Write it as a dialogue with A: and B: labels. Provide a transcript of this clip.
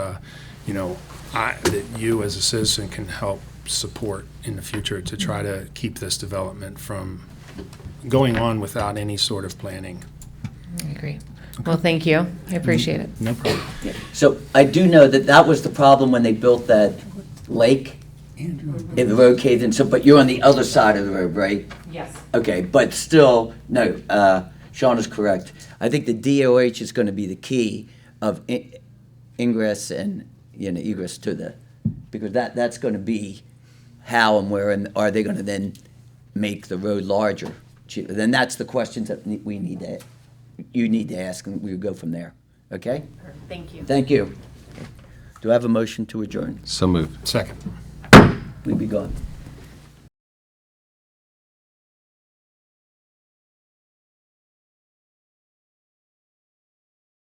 A: uh, you know, I, that you as a citizen can help support in the future to try to keep this development from going on without any sort of planning.
B: I agree. Well, thank you. I appreciate it.
A: No problem.
C: So I do know that that was the problem when they built that lake, and the road caved in, so, but you're on the other side of the road, right?
B: Yes.
C: Okay, but still, no, uh, Sean is correct. I think the DOH is gonna be the key of in- ingress and, you know, egress to the, because that, that's gonna be how and where, and are they gonna then make the road larger? Gee, Then that's the questions that ne- we need to, you need to ask, and we go from there, okay?
B: Thank you.
C: Thank you. Do I have a motion to adjourn?
D: So moved.
A: Second.
C: We be gone.